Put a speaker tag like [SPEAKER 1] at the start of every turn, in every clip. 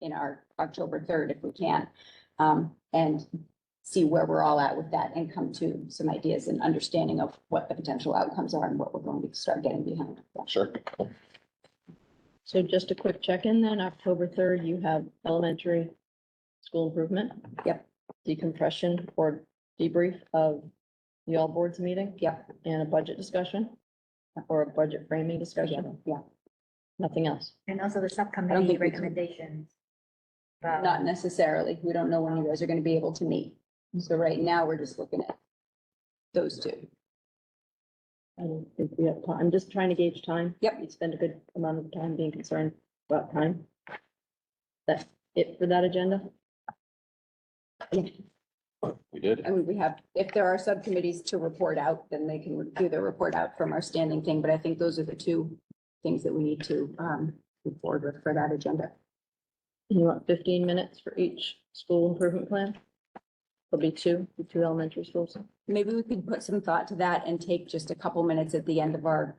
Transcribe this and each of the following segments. [SPEAKER 1] in our October third if we can. Um, and see where we're all at with that and come to some ideas and understanding of what the potential outcomes are and what we're going to start getting behind. Yeah.
[SPEAKER 2] Sure.
[SPEAKER 3] So just a quick check-in then, October third, you have elementary school improvement.
[SPEAKER 1] Yep.
[SPEAKER 3] Decompression or debrief of the all boards meeting.
[SPEAKER 1] Yep.
[SPEAKER 3] And a budget discussion or a budget framing discussion,
[SPEAKER 1] Yeah,
[SPEAKER 3] nothing else.
[SPEAKER 4] And also the
[SPEAKER 1] I don't
[SPEAKER 4] subcommittee
[SPEAKER 1] think we can-
[SPEAKER 4] recommendations.
[SPEAKER 1] yeah.
[SPEAKER 4] about-
[SPEAKER 1] not necessarily. We don't know when you guys are gonna be able to meet. So right now, we're just looking at those two.
[SPEAKER 3] I don't think we have time. I'm just trying to gauge time.
[SPEAKER 1] Yep.
[SPEAKER 3] You spend a good amount of time being concerned about time. That's it for that agenda?
[SPEAKER 2] We did.
[SPEAKER 1] I mean, we have, if there are subcommittees to report out, then they can do their report out from our standing thing, but I think those are the two things that we need to um move forward with for that agenda.
[SPEAKER 3] You want fifteen minutes for each school improvement plan? There'll be two, the two elementary schools.
[SPEAKER 1] Maybe we could put some thought to that and take just a couple minutes at the end of our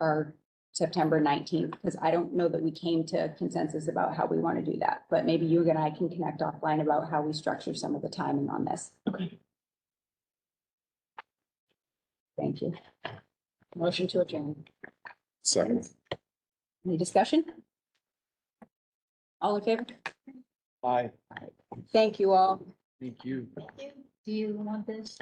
[SPEAKER 1] our September nineteenth, because I don't know that we came to consensus about how we want to do that, but maybe you and I can connect offline about how we structure some of the timing on this.
[SPEAKER 3] Okay.
[SPEAKER 1] Thank you. Motion to adjourn.
[SPEAKER 2] Second.
[SPEAKER 1] Any discussion? All in favor?
[SPEAKER 2] Aye.
[SPEAKER 1] Thank you all.
[SPEAKER 2] Thank you.
[SPEAKER 4] Do you want this?